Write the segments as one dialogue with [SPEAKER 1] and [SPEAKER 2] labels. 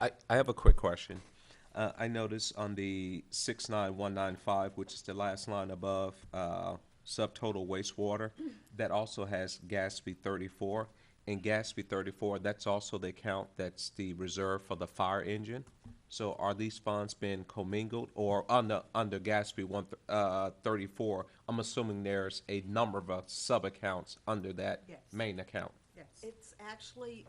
[SPEAKER 1] I, I have a quick question. Uh, I noticed on the six nine one nine five, which is the last line above, uh, subtotal wastewater,
[SPEAKER 2] Mm.
[SPEAKER 1] that also has Gatsby thirty-four. And Gatsby thirty-four, that's also the account that's the reserve for the fire engine. So are these funds being commingled or under, under Gatsby one, th- uh, thirty-four? I'm assuming there's a number of uh, sub-accounts under that
[SPEAKER 2] Yes.
[SPEAKER 1] main account.
[SPEAKER 2] Yes. It's actually,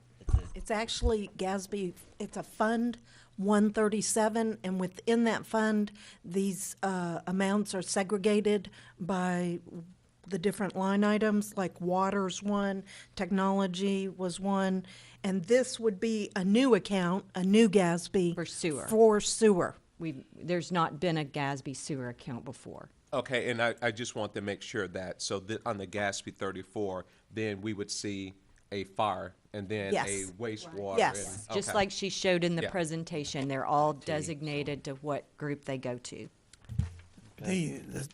[SPEAKER 2] it's actually GASB, it's a fund, one thirty-seven, and within that fund, these, uh, amounts are segregated by the different line items, like water's one, technology was one, and this would be a new account, a new GASB.
[SPEAKER 3] For sewer.
[SPEAKER 2] For sewer.
[SPEAKER 3] We've, there's not been a Gasby sewer account before.
[SPEAKER 1] Okay, and I, I just want to make sure that, so that on the Gatsby thirty-four, then we would see a fire and then a
[SPEAKER 2] Yes.
[SPEAKER 1] wastewater.
[SPEAKER 2] Yes.
[SPEAKER 1] and-
[SPEAKER 3] Just
[SPEAKER 1] okay.
[SPEAKER 3] like she showed in the
[SPEAKER 1] Yeah.
[SPEAKER 3] presentation, they're all designated to what group they go to.
[SPEAKER 4] The, the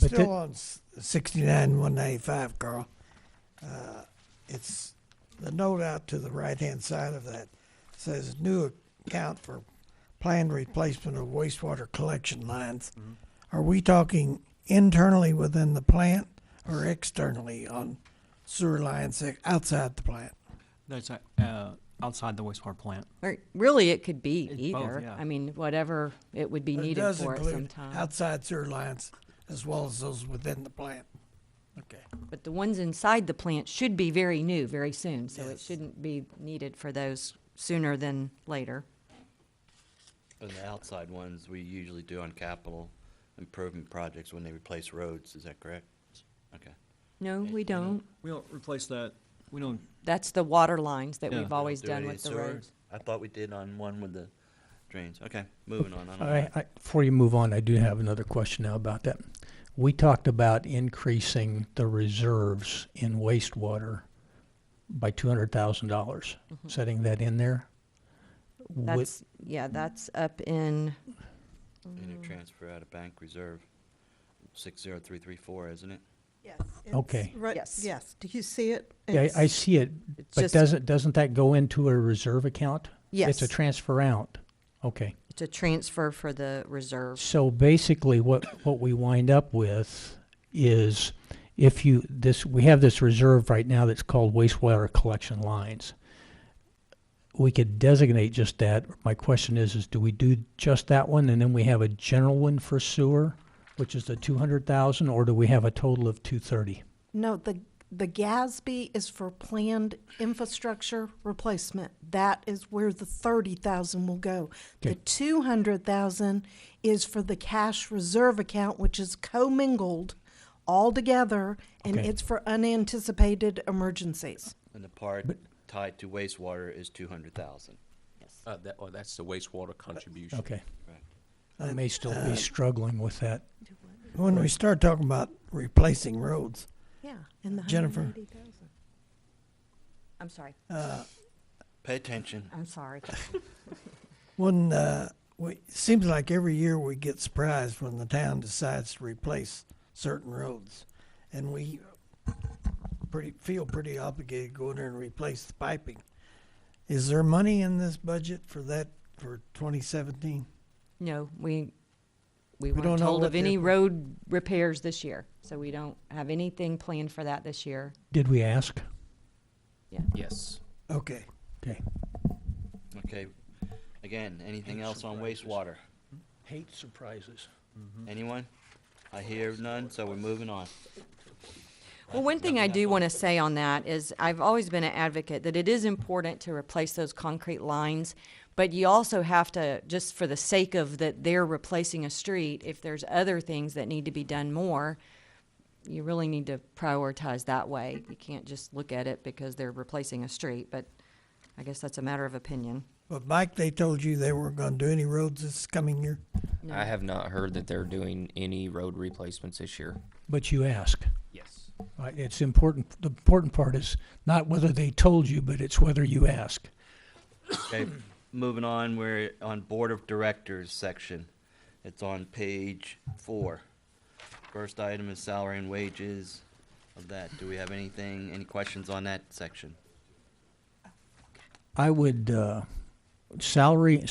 [SPEAKER 5] But
[SPEAKER 4] still
[SPEAKER 5] the-
[SPEAKER 4] on sixty-nine one ninety-five, Carl. uh, It's the note out to the right-hand side of that says new account for planned replacement of wastewater collection lines. Are we talking internally within the plant or externally on sewer lines e- outside the plant?
[SPEAKER 5] That's uh, outside the wastewater plant.
[SPEAKER 3] Or really, it could be
[SPEAKER 5] It's both,
[SPEAKER 3] either.
[SPEAKER 5] yeah.
[SPEAKER 3] I mean, whatever it would be
[SPEAKER 4] But it
[SPEAKER 3] needed
[SPEAKER 4] does
[SPEAKER 3] for at
[SPEAKER 4] include
[SPEAKER 3] some time.
[SPEAKER 4] Outside sewer lines as well as those within the plant. Okay.
[SPEAKER 3] But the ones inside the plant should be very new, very soon, so it
[SPEAKER 4] Yes.
[SPEAKER 3] shouldn't be needed for those sooner than later.
[SPEAKER 6] And the outside ones, we usually do on capital improvement projects when they replace roads, is that correct? Okay.
[SPEAKER 3] No, we don't.
[SPEAKER 5] We don't replace that. We don't.
[SPEAKER 3] That's the water lines that
[SPEAKER 5] Yeah.
[SPEAKER 3] we've always
[SPEAKER 6] Do any
[SPEAKER 3] done with the
[SPEAKER 6] sewer?
[SPEAKER 3] roads.
[SPEAKER 6] I thought we did on one with the drains. Okay, moving on. I don't
[SPEAKER 5] right.
[SPEAKER 6] know.
[SPEAKER 7] I, before you move on, I do have another question now about that. We talked about increasing the reserves in wastewater by two hundred thousand dollars,
[SPEAKER 3] Mm-hmm.
[SPEAKER 7] setting that in there. Would-
[SPEAKER 3] That's, yeah, that's up in,
[SPEAKER 6] Any transfer out of bank reserve, six zero three three four, isn't it?
[SPEAKER 2] Yes.
[SPEAKER 7] Okay.
[SPEAKER 2] Right,
[SPEAKER 3] Yes.
[SPEAKER 2] yes. Do you see it?
[SPEAKER 7] yeah, I, I
[SPEAKER 2] It's-
[SPEAKER 7] see it,
[SPEAKER 3] It's
[SPEAKER 7] but
[SPEAKER 3] just-
[SPEAKER 7] doesn't doesn't that go into a reserve account? it's a
[SPEAKER 3] Yes.
[SPEAKER 7] transfer out. Okay.
[SPEAKER 3] it's a transfer for the reserve.
[SPEAKER 7] So basically, what, what we wind up with is if you, this, we have this reserve right now that's called wastewater collection lines. We could designate just that. My question is, is do we do just that one and then we have a general one for sewer, which is the two hundred thousand, or do we have a total of two thirty?
[SPEAKER 2] No, the, the GASB is for planned infrastructure replacement. That is where the thirty thousand will go. The
[SPEAKER 7] Okay.
[SPEAKER 2] two hundred thousand is for the cash reserve account, which is commingled all together, and
[SPEAKER 7] Okay.
[SPEAKER 2] it's for unanticipated emergencies.
[SPEAKER 6] And the part tied to wastewater is two hundred thousand.
[SPEAKER 1] Uh, that, or that's the wastewater contribution.
[SPEAKER 7] Okay.
[SPEAKER 6] Right.
[SPEAKER 7] I may still be struggling with that.
[SPEAKER 4] When we start talking about replacing roads,
[SPEAKER 2] Yeah, and the
[SPEAKER 4] Jennifer.
[SPEAKER 2] hundred and eighty thousand.
[SPEAKER 3] I'm sorry,
[SPEAKER 6] Pay attention.
[SPEAKER 3] I'm sorry.
[SPEAKER 4] When uh, we seems like every year we get surprised when the town decides to replace certain roads, and we pretty feel pretty obligated to go in there and replace the piping. Is there money in this budget for that for 2017?
[SPEAKER 3] No, we, we
[SPEAKER 4] We
[SPEAKER 3] weren't
[SPEAKER 4] don't know
[SPEAKER 3] told
[SPEAKER 4] what
[SPEAKER 3] of
[SPEAKER 4] the
[SPEAKER 3] any
[SPEAKER 4] impl-
[SPEAKER 3] road repairs this year, so we don't have anything planned for that this year.
[SPEAKER 7] Did we ask?
[SPEAKER 5] Yes.
[SPEAKER 4] Okay,
[SPEAKER 7] Okay.
[SPEAKER 6] Okay, again, anything else on wastewater?
[SPEAKER 7] Hate surprises.
[SPEAKER 6] Anyone? I hear none, so we're moving on.
[SPEAKER 3] Well, one thing I do want to say on that is I've always been an advocate that it is important to replace those concrete lines, but you also have to, just for the sake of that they're replacing a street, if there's other things that need to be done more, you really need to prioritize that way. You can't just look at it because they're replacing a street, but I guess that's a matter of opinion.
[SPEAKER 4] but Mike, they told you they weren't going to do any roads this coming year.
[SPEAKER 8] I have not heard that they're doing any road replacements this year.
[SPEAKER 7] But you ask.
[SPEAKER 8] Yes.
[SPEAKER 7] Uh, It's important, the important part is not whether they told you, but it's whether you ask.
[SPEAKER 6] Okay, moving on, we're on Board of Directors section. It's on page four. First item is salary and wages of that. Do we have anything, any questions on that section?
[SPEAKER 7] I would, uh, salary